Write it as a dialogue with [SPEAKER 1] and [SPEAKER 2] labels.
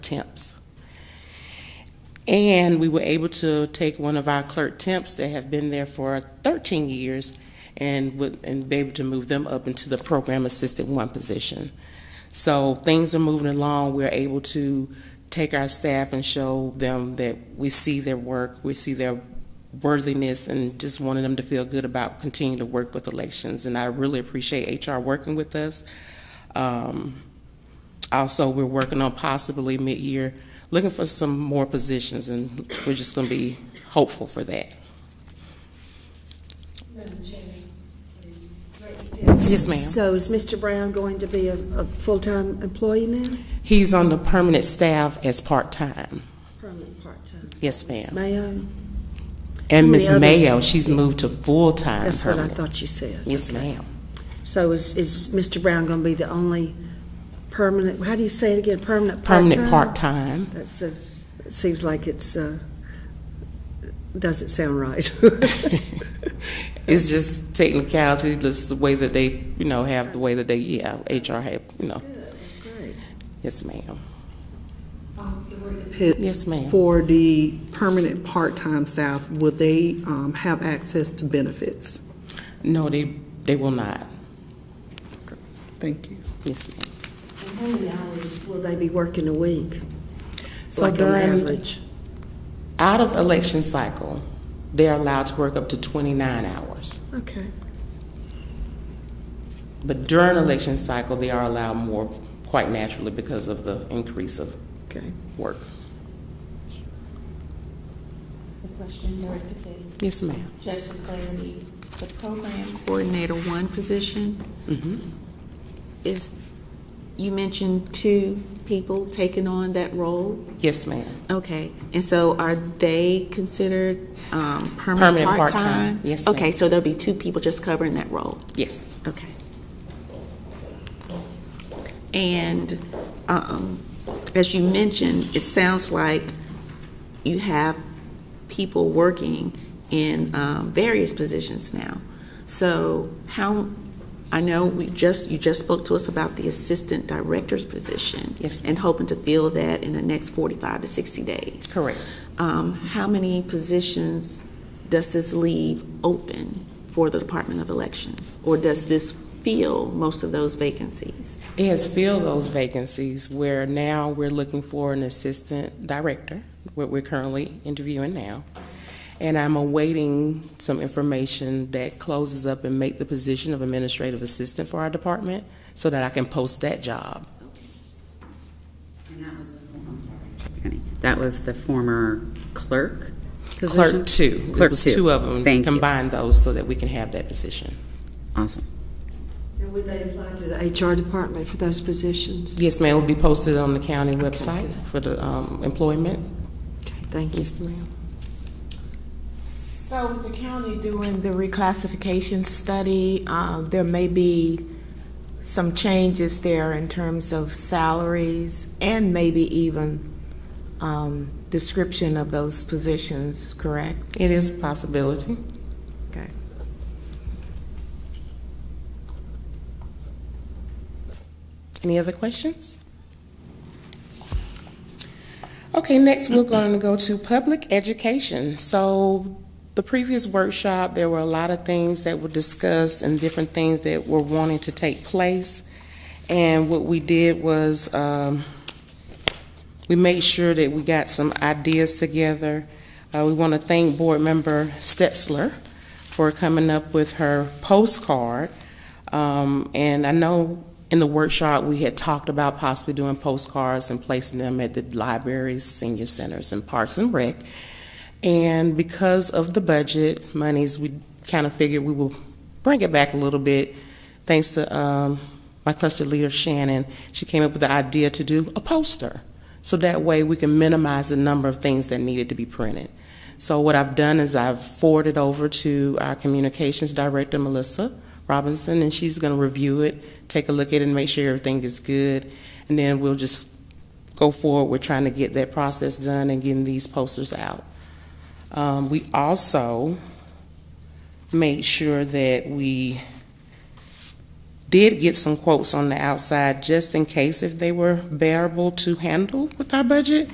[SPEAKER 1] temps. And we were able to take one of our clerk temps that have been there for 13 years and would, and be able to move them up into the program assistant one position. So things are moving along. We're able to take our staff and show them that we see their work, we see their worthiness, and just wanted them to feel good about continuing to work with elections. And I really appreciate HR working with us. Um, also, we're working on possibly mid-year, looking for some more positions, and we're just going to be hopeful for that.
[SPEAKER 2] Madam Chair, please.
[SPEAKER 1] Yes, ma'am.
[SPEAKER 2] So is Mr. Brown going to be a, a full-time employee now?
[SPEAKER 1] He's on the permanent staff as part-time.
[SPEAKER 2] Permanent, part-time?
[SPEAKER 1] Yes, ma'am.
[SPEAKER 2] Mayo,
[SPEAKER 1] And
[SPEAKER 2] How many
[SPEAKER 1] Ms.
[SPEAKER 2] others?
[SPEAKER 1] Mayo, she's moved to full-time
[SPEAKER 2] that's what I
[SPEAKER 1] permanent.
[SPEAKER 2] thought you said.
[SPEAKER 1] Yes, ma'am.
[SPEAKER 2] So is, is Mr. Brown going to be the only permanent, how do you say it again, permanent, part-time?
[SPEAKER 1] Permanent part-time.
[SPEAKER 2] That's, a- it seems like it's, uh, doesn't sound right.
[SPEAKER 1] It's just technicality, just the way that they, you know, have the way that they, yeah, HR have, you know.
[SPEAKER 2] That's great.
[SPEAKER 1] Yes, ma'am.
[SPEAKER 3] Pitt
[SPEAKER 1] Yes, ma'am.
[SPEAKER 3] For the permanent part-time staff, will they um, have access to benefits?
[SPEAKER 1] No, they, they will not.
[SPEAKER 3] Thank you.
[SPEAKER 1] Yes, ma'am.
[SPEAKER 2] And How many hours will they be working a week?
[SPEAKER 1] So
[SPEAKER 2] Like on
[SPEAKER 1] during-
[SPEAKER 2] average?
[SPEAKER 1] Out of election cycle, they're allowed to work up to 29 hours.
[SPEAKER 2] Okay.
[SPEAKER 1] But during election cycle, they are allowed more quite naturally because of the increase of
[SPEAKER 2] Okay.
[SPEAKER 1] work.
[SPEAKER 4] The question, Lord, if it's
[SPEAKER 1] Yes, ma'am.
[SPEAKER 4] just for clarity, the program coordinator one position
[SPEAKER 1] Mm-hmm.
[SPEAKER 4] is, you mentioned two people taking on that role?
[SPEAKER 1] Yes, ma'am.
[SPEAKER 4] Okay, and so are they considered um, permanent
[SPEAKER 1] Permanent part-time,
[SPEAKER 4] part-time?
[SPEAKER 1] yes, ma'am.
[SPEAKER 4] Okay, so there'll be two people just covering that role?
[SPEAKER 1] Yes.
[SPEAKER 4] Okay. And um, as you mentioned, it sounds like you have people working in um, various positions now. So how, I know we just, you just spoke to us about the assistant director's position.
[SPEAKER 1] Yes, ma'am.
[SPEAKER 4] And hoping to fill that in the next 45 to 60 days.
[SPEAKER 1] Correct.
[SPEAKER 4] Um, How many positions does this leave open for the Department of Elections? Or does this fill most of those vacancies?
[SPEAKER 1] It has filled those vacancies where now we're looking for an assistant director, what we're currently interviewing now. And I'm awaiting some information that closes up and make the position of administrative assistant for our department so that I can post that job.
[SPEAKER 5] And that was the, I'm sorry. That was the former clerk position?
[SPEAKER 1] Clerk two. It
[SPEAKER 5] Clerk
[SPEAKER 1] was
[SPEAKER 5] two.
[SPEAKER 1] two of them.
[SPEAKER 5] Thank you.
[SPEAKER 1] Combine those so that we can have that position.
[SPEAKER 5] Awesome.
[SPEAKER 2] And would they apply to the HR department for those positions?
[SPEAKER 1] Yes, ma'am, it will be posted on the county website for the um, employment.
[SPEAKER 2] Okay, thank you.
[SPEAKER 1] Yes, ma'am.
[SPEAKER 6] So with the county doing the reclassification study, um, there may be some changes there in terms of salaries and maybe even um, description of those positions, correct?
[SPEAKER 1] It is a possibility.
[SPEAKER 6] Okay.
[SPEAKER 1] Any other questions? Okay, next we're going to go to public education. So the previous workshop, there were a lot of things that were discussed and different things that were wanting to take place. And what we did was, um, we made sure that we got some ideas together. Uh, we want to thank Board Member Stetzler for coming up with her postcard. Um, and I know in the workshop, we had talked about possibly doing postcards and placing them at the libraries, senior centers, and parks and rec. And because of the budget monies, we kind of figured we will bring it back a little bit. Thanks to um, my cluster leader Shannon, she came up with the idea to do a poster. So that way we can minimize the number of things that needed to be printed. So what I've done is I've forwarded over to our communications director, Melissa Robinson, and she's going to review it, take a look at it, and make sure everything is good. And then we'll just go forward with trying to get that process done and getting these posters out. Um, we also made sure that we did get some quotes on the outside just in case if they were bearable to handle with our budget.